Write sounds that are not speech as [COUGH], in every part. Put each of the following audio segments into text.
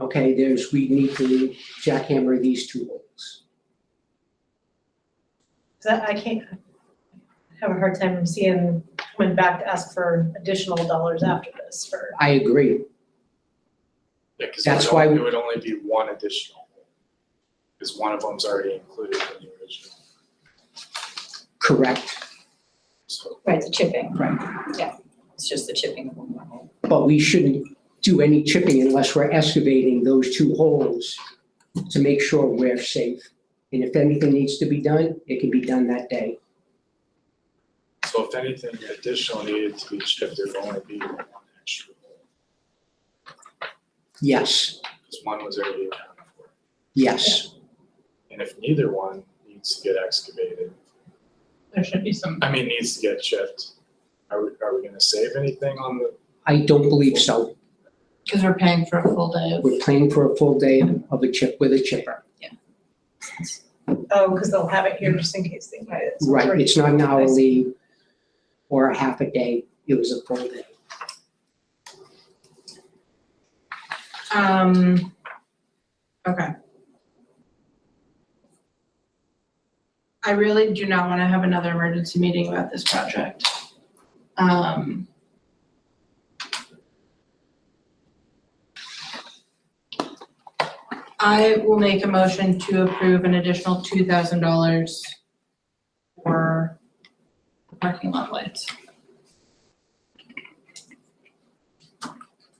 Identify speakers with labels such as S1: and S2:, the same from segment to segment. S1: okay, there's, we need to jackhammer these two holes.
S2: That, I can't, I have a hard time seeing coming back to ask for additional dollars after this for,
S1: I agree,
S3: Yeah, 'cause it
S1: That's
S3: would
S1: why
S3: only-
S1: we-
S3: It would only be one additional. Because one of them's already included in the original,
S1: correct,
S3: so.
S4: Right, the chipping.
S1: Right.
S4: Yeah, it's just the chipping of one hole.
S1: but we shouldn't do any chipping unless we're excavating those two holes to make sure we're safe. And if anything needs to be done, it can be done that day.
S3: So if anything additional needed to be shipped, there'd only be one extra.
S1: Yes,
S3: Because one was already accounted for.
S1: yes,
S3: And if neither one needs to get excavated,
S2: there should be some.
S3: I mean, needs to get shipped, are we, are we gonna save anything on the,
S1: I don't believe so.
S5: Because we're paying for a full day of.
S1: We're planning for a full day of a chip with a chipper.
S2: Oh, because they'll have it here just in case they might. it's
S1: Right,
S2: already-
S1: it's not an hourly or a half a day, it was a full day.
S5: Um, okay. I really do not want to have another emergency meeting about this project. Um. I will make a motion to approve an additional two thousand dollars for the parking lot lights.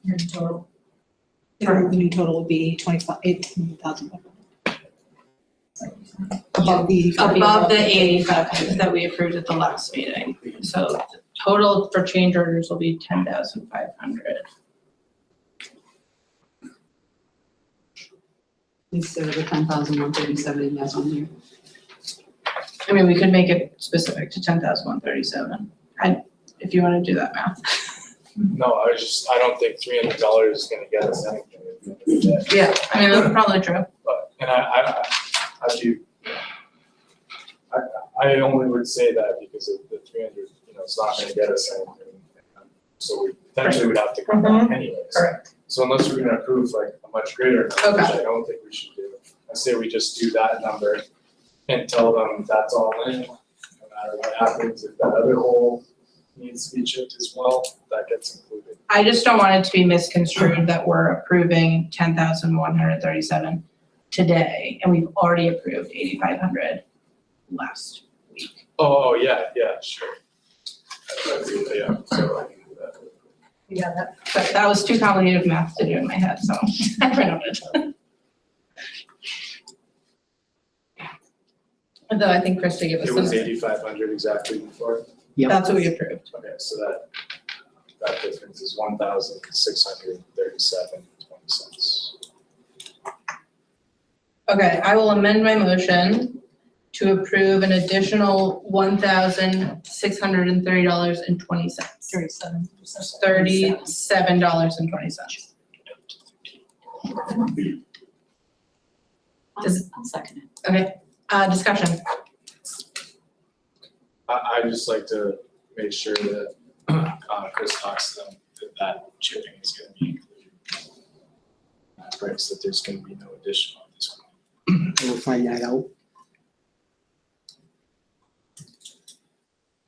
S6: Your total. Your new total would be twenty-five, eighteen thousand. Above the.
S5: above the eighty-five that we approved at the last meeting. So the total for change orders will be ten thousand five hundred.
S6: Instead of the ten thousand one thirty-seven, that's on here.
S5: I mean, we could make it specific to ten thousand one thirty-seven. I, if you wanna do that math.
S2: Mm-hmm.
S3: no, I was just, I don't think three hundred dollars is gonna get us anything. at the end of the day.
S5: Yeah. I mean, that's probably true.
S3: But, and I, I, I- I do. I, I only would say that because of the three hundred, you know, it's not gonna get us anything. So we potentially would have to come back anyways.
S5: Correct.
S3: So unless we're gonna approve like a much greater number, which I don't think we should do, I say we just do that number and tell them that's all in, no matter what happens, if that other hole needs to be chipped as well, that gets included.
S5: I just don't want it to be misconstrued that we're approving ten thousand one hundred thirty-seven today, and we've already approved eighty-five hundred last week.
S3: Oh, yeah, yeah, sure. I agree, Yeah, so I can do that.
S2: Yeah, that,
S5: But that was too complicated math to do in my head, so [LAUGHS] I ran out of time. Although I think Krista gave us
S3: It was
S5: some,
S3: eighty-five hundred exactly before,
S1: Yep.
S5: that's what we approved.
S3: okay, so that, that difference is one thousand six hundred thirty-seven twenty cents.
S5: Okay, I will amend my motion to approve an additional one thousand six hundred and thirty dollars and twenty cents.
S6: Thirty-seven.
S5: Thirty-seven dollars and twenty cents.
S4: I'll
S5: Does-
S4: I'll second it.
S5: Uh, discussion,
S3: I, I just like to make sure that, uh, Chris talks to them, that that chipping is gonna be included. That breaks that there's gonna be no additional at this point.
S1: We'll find that out.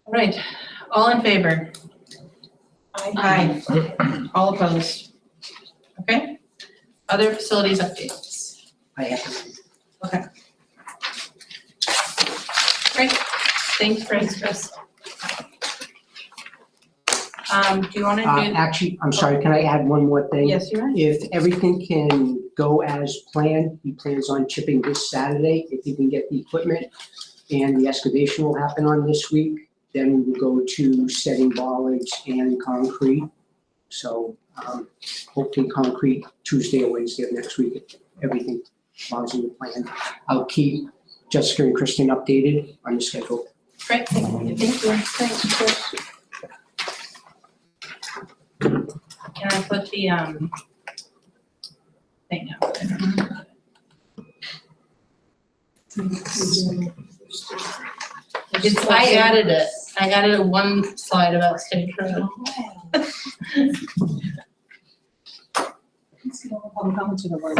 S5: All right, all in favor?
S2: I,
S5: Aye. All opposed? Okay. Other facilities updates.
S1: I have to.
S5: Thanks, Chris. Chris. Um, do you want to
S1: Uh,
S5: do?
S1: actually, I'm sorry, can I add one more thing?
S5: Yes, you are.
S1: If everything can go as planned, he plans on chipping this Saturday if he can get the equipment. And the excavation will happen on this week, then we will go to setting bollards and concrete. So, um, hopefully concrete Tuesday or Wednesday of next week, if everything follows in the plan. I'll keep Jessica and Kristen updated on the schedule.
S5: Great, thank you. Thank you. Thanks, Chris. Can I put the, um, thing up there? It's, I added it. I added one slide about state road.
S6: ask, you know, public comments or the board?